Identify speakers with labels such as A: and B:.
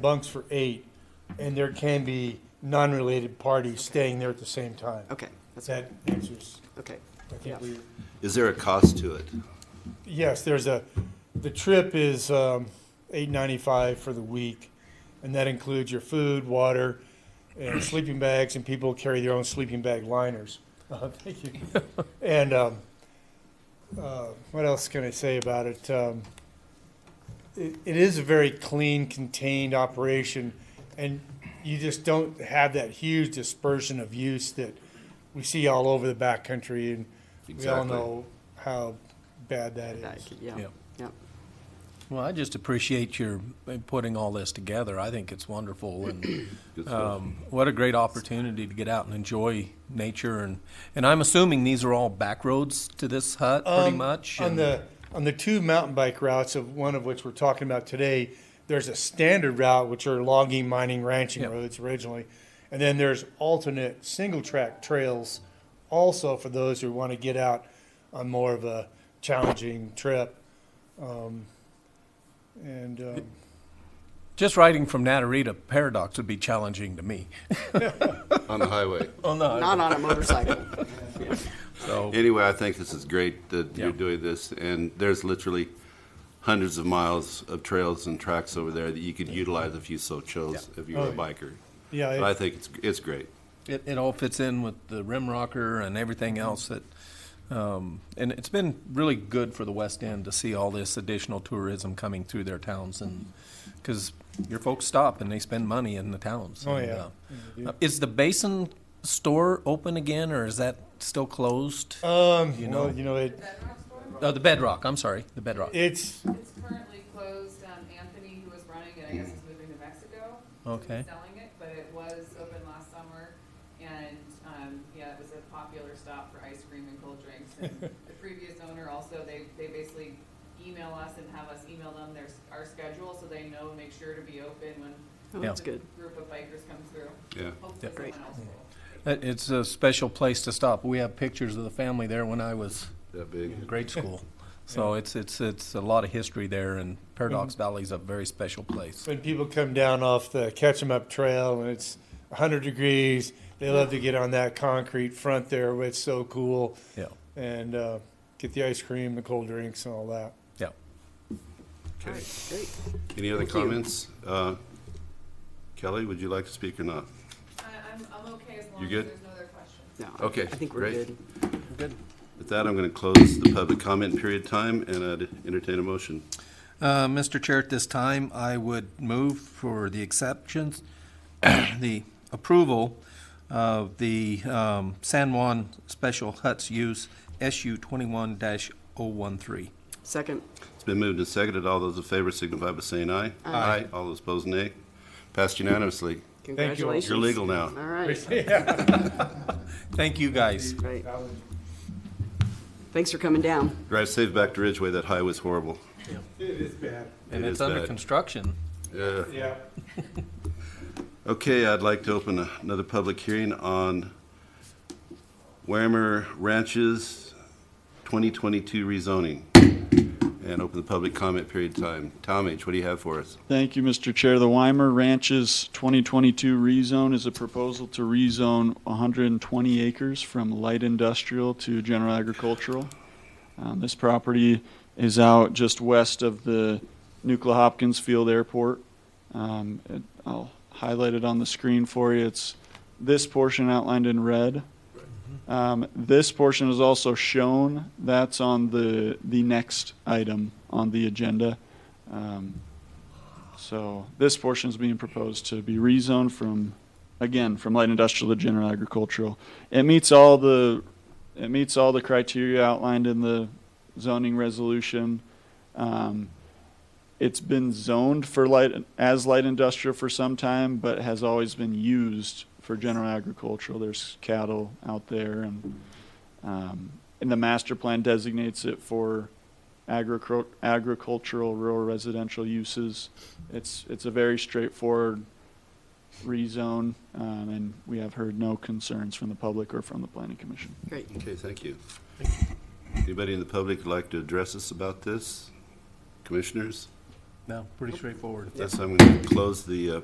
A: bunks for eight, and there can be non-related parties staying there at the same time.
B: Okay, that's,
A: That answers,
B: okay.
A: I
B: Yeah.
A: think we,
C: Is there a cost to it?
A: yes, there's a, the trip is, um, eight ninety-five for the week, and that includes your food, water, and sleeping bags, and people carry their own sleeping bag liners. Uh, thank you. And, um, uh, what else can I say about it? Um, it, it is a very clean, contained operation, and you just don't have that huge dispersion of use that we see all over the backcountry, and we all
C: Exactly.
A: know how bad that
B: That-
A: is.
B: Yeah,
D: Yeah.
B: yeah.
D: Well, I just appreciate your uh, putting all this together. I think it's wonderful, and
C: Good stuff.
D: um, what a great opportunity to get out and enjoy nature. And and I'm assuming these are all back roads to this hut, pretty
A: Um,
D: much.
A: On
D: and-
A: the, on the two mountain bike routes, of one of which we're talking about today, there's a standard route, which are logging, mining, ranching
D: Yep.
A: roads originally. And then there's alternate single track trails also for those who want to get out on more of a challenging trip. Um, And, um,
D: just riding from Natarita Paradox would be challenging to me.
C: On the highway.
D: Oh no,
B: Not on a motorcycle.
D: so
C: Anyway, I think this is great that you're
D: Yeah.
C: doing this, and there's literally hundreds of miles of trails and tracks over there that you could utilize if you so chose, if you were a
A: Oh,
C: biker.
A: yeah,
C: But I
A: it-
C: think it's, it's great.
D: it, it all fits in with the rim rocker and everything else that. Um, and it's been really good for the West End to see all this additional tourism coming through their towns, and because your folks stop and they spend money in the towns.
A: Oh,
D: and,
A: yeah.
D: uh, is the Basin store open again, or is that still closed?
A: um,
D: you
A: well,
D: know-
A: you know, it,
E: Bedrock store?
D: oh, the Bedrock. I'm sorry, the Bedrock.
A: it's,
E: It's currently closed. Um, Anthony, who was running it, I guess is moving to Mexico. so he's
D: Okay.
E: Selling it, but it was open last summer. And, um, yeah, it was a popular stop for ice cream and cold drinks. And the previous owner also, they, they basically email us and have us email them their, s- our schedule so they know, make sure to be open when
B: Oh,
D: Yeah.
B: That's
E: the
B: good.
E: group of bikers come through.
C: Yeah.
E: Hopefully
B: Great.
E: someone else will.
D: It- It's a special place to stop. We have pictures of the family there when I was
C: That big.
D: in grade school. So it's, it's, it's a lot of history there, and Paradox Valley's a very special place.
A: When people come down off the Catch 'em Up Trail and it's 100 degrees, they love to get on that concrete front there. where It's so cool.
D: Yeah,
A: And uh, get the ice cream, the cold drinks, and all that.
D: yeah.
B: All
C: Okay.
B: right, great.
C: Any other
B: Thank you.
C: comments? Uh, Kelly, would you like to speak or not?
E: I, I'm, I'm okay as long
C: You
E: as
C: good?
E: there's no other questions.
B: No, I-
C: Okay,
B: I think we're
C: great.
B: good.
C: With that, I'm going to close the public comment period time, and I'd entertain a motion.
D: Uh, Mr. Chair, at this time, I would move for the exceptions, the approval of the um, San Juan Special Huts Use SU twenty-one oh 13
B: Second,
C: It's been moved and seconded. All those in favor signify by saying aye.
B: Aye.
C: All those opposed, nay. Passed unanimously.
B: congratulations.
C: You're legal now.
B: All right,
D: Thank you, guys.
B: great. Thanks for coming down.
C: Drive safe back to Ridgeway. That highway was horrible.
A: It is bad.
D: And
C: It
D: it's
C: is
D: under
C: bad.
D: construction.
C: Yeah.
A: Yeah.
C: Okay, I'd like to open another public hearing on Whammer Ranches 2022 rezoning and open the public comment period time. Tom H., what do you have for us?
F: Thank you, Mr. Chair. The Weimer Ranches 2022 rezone is a proposal to rezone 120 acres from light industrial to general agricultural. Um, This property is out just west of the Nuclear Hopkins Field Airport. Um, it- I'll highlight it on the screen for you. It's this portion outlined in red. Um, This portion is also shown. That's on the, the next item on the agenda. Um, so this portion is being proposed to be rezoned from, again, from light industrial to general agricultural. It meets all the, it meets all the criteria outlined in the zoning resolution. Um, It's been zoned for light, as light industrial for some time, but has always been used for general agricultural. There's cattle out there and, um, and the master plan designates it for agricul- agricultural, rural residential uses. It's, it's a very straightforward rezone, um, and we have heard no concerns from the public or from the planning commission.
B: Great.
C: Okay, thank you. Anybody in the public would like to address us about this? Commissioners?
D: No, pretty straightforward.
C: That's, I'm going to close the uh,